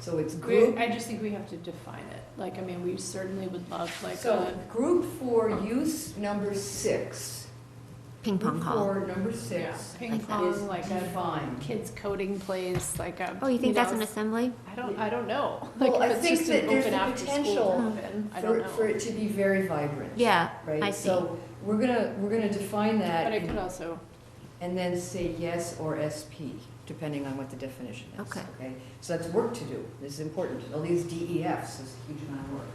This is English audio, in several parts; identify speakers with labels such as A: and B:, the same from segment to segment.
A: So it's
B: We,
A: group,
B: I just think we have to define it. Like, I mean, we certainly would love like uh,
A: so
B: a,
A: group four, use number six.
C: Ping pong hall.
A: Group four, number
B: yeah,
A: six
B: ping
C: like that.
A: is
B: pong, like a
A: defined.
B: kids coding place, like a.
C: Oh, you think that's
B: know,
C: an assembly?
B: I don't, I don't know. Like,
A: Well, I
B: if it's
A: think
B: just
A: that
B: an
A: there's
B: open
A: the
B: after
A: potential
B: school open, I
A: For,
B: don't know.
A: for it to be very vibrant.
C: Yeah,
A: Right?
C: I see.
A: So we're gonna, we're gonna define
B: But
A: that
B: I could also,
A: and then say yes or SP, depending on what the definition is.
C: Okay.
A: So that's work to do, this is important, all these DEFs is a huge amount of work.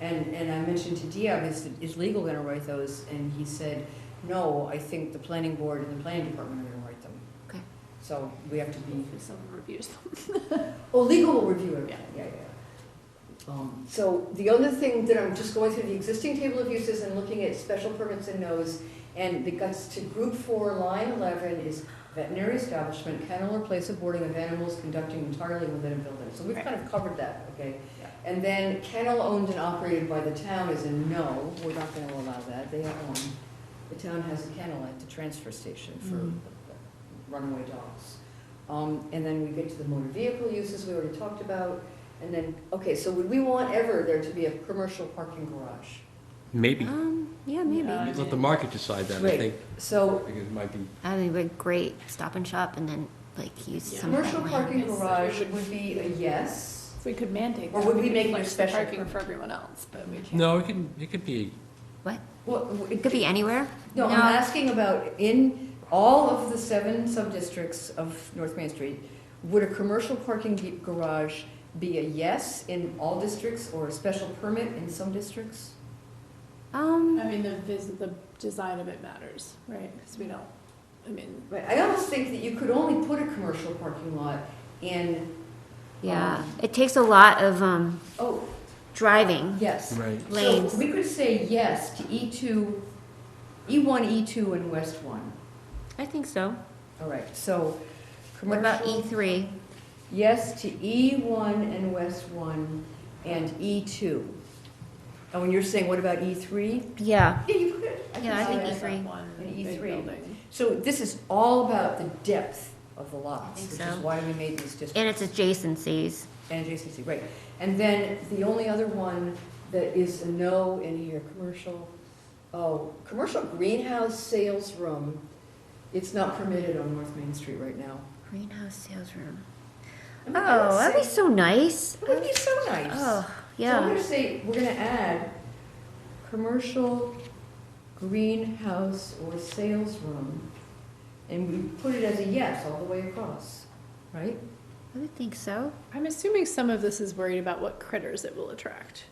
A: And, and I mentioned to Diab, is, is legal gonna write those? And he said, no, I think the planning board and the planning department are gonna write them.
C: Okay.
A: So we have to be,
B: if someone reviews them.
A: oh, legal will review it, yeah, yeah, yeah. Um, So the other thing that I'm just going through the existing table of uses and looking at special permits and no's, and it gets to group four, line eleven is veterinary establishment, kennel or place of boarding of animals conducting entirely within a building. So we've
B: Right.
A: kind of covered that, okay?
B: Yeah.
A: And then kennel owned and operated by the town is a no, we're not gonna allow that, they own. The town has a kennel at the transfer station
C: Mm.
A: for runaway dogs. Um, and then we get to the motor vehicle uses we already talked about, and then, okay, so would we want ever there to be a commercial parking garage?
D: Maybe.
C: Um, yeah, maybe.
B: Yeah.
D: Let the market decide that, I
A: Right.
D: think.
A: So
D: I think it might be,
C: I mean, we're great stop and shop and then like use
B: Yeah.
C: some of that
A: Commercial
C: land.
A: parking
B: Yes.
A: garage would be a yes.
B: If we could mandate.
A: Or
B: that,
A: would we
B: could
A: make it a
B: flex the
A: special
B: Parking
A: permit?
B: for everyone else, but we can't.
D: no, it could, it could be,
C: What?
A: Well,
C: It could be anywhere?
A: No, I'm asking about in all of the seven sub-districts of North Main Street, would a commercial parking g- garage be a yes in all districts or a special permit in some districts?
C: Um,
B: I
A: Uh,
B: mean, the vis, the design of it matters, right? Because we don't, I mean,
A: Right, I almost think that you could only put a commercial parking lot in,
C: yeah,
A: Um,
C: it takes a lot of, um,
A: oh,
C: driving.
A: yes.
D: right.
C: Lanes.
A: So we could say yes to E two, E one, E two, and West one.
C: I think so.
A: All right, so
C: What
A: commercial.
C: about E three?
A: Yes to E1 and West 1 and E2. Oh, and you're saying, what about E3?
C: Yeah,
A: Yeah, you could.
C: Yeah, I
A: can
C: think E
A: see
C: E3.
A: that.
C: E3.
B: one
A: And
B: big
A: E3.
B: building.
A: So this is all about the depth of the lots,
C: think
A: which is
C: so.
A: why we made these
C: and
A: districts
C: it's adjacencies.
A: and adjacency, right. And then the only other one that is a no in here, commercial, oh, commercial greenhouse sales room. It's not permitted on North Main Street right now.
C: Greenhouse sales room.
A: I mean, I would
C: Oh, that'd be
A: say-
C: so nice.
A: That would be so nice.
C: Oh,
A: So I'm
C: yeah.
A: gonna say, we're gonna add commercial greenhouse or sales room, and we put it as a yes all the way across, right?
C: I would think so.
B: I'm assuming some of this is worried about what critters it will attract.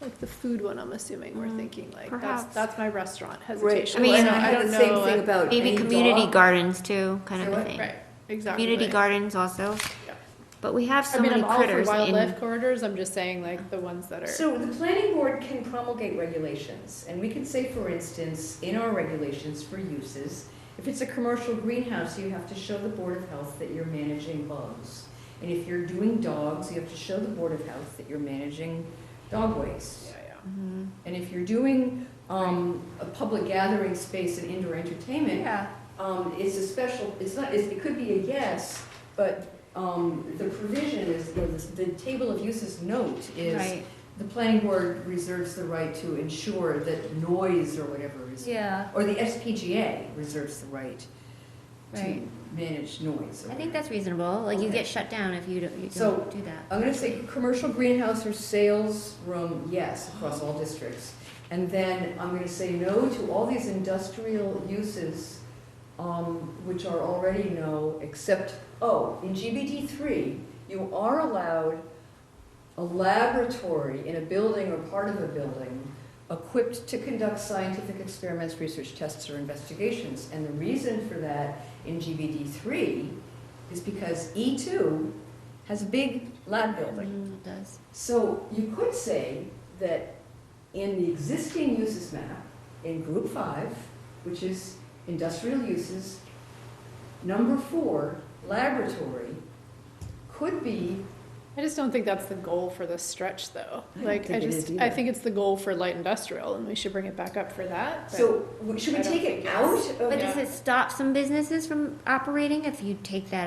B: Like the food one, I'm assuming we're
C: Mm,
B: thinking like, that's,
C: perhaps.
B: that's my restaurant hesitation.
C: I mean,
B: Like,
C: and I
B: I don't know.
A: Same thing
B: uh,
A: about
C: Maybe
A: any
C: community
A: dog.
C: gardens too, kind
A: Say
C: of a
A: what?
C: thing.
B: Right, exactly.
C: Community gardens also.
B: Yeah.
C: But we have so
B: I mean,
C: many
B: I'm all for
C: critters in.
B: wildlife corridors, I'm just saying like the ones that are,
A: So the planning board can promulgate regulations, and we can say, for instance, in our regulations for uses, if it's a commercial greenhouse, you have to show the Board of Health that you're managing bugs. And if you're doing dogs, you have to show the Board of Health that you're managing dog waste.
B: yeah, yeah.
C: Mhm.
A: And if you're doing um, a public gathering space and indoor entertainment,
B: Yeah.
A: um, it's a special, it's not, it's- it could be a yes, but um, the provision is, you know, the the table of uses note is,
C: Right.
A: the planning board reserves the right to ensure that noise or whatever is,
C: Yeah.
A: or the SPGA reserves the right to
C: Right.
A: manage noise. or
C: I think that's reasonable. Like you
A: Okay.
C: get shut down if you don't, you
A: So-
C: don't do that.
A: I'm gonna say commercial greenhouse or sales room, yes, across all districts. And then I'm gonna say no to all these industrial uses, um, which are already no, except, oh, in GBD three, you are allowed a laboratory in a building or part of a building equipped to conduct scientific experiments, research tests, or investigations. And the reason for that in GBD three is because E two has a big lab building.
C: Mm, it does.
A: So you could say that in the existing uses map, in group five, which is industrial uses, number four, laboratory, could be,
B: I just don't think that's the goal for this stretch though.
A: I don't
B: Like, I
A: think it is
B: just, I
A: either.
B: think it's the goal for light industrial and we should bring it back up for that. but-
A: so w- should we
B: I don't
A: take
B: think
A: it
B: it's-
A: out of?
C: But
B: Oh, yeah.
C: does it stop some businesses from operating if you take that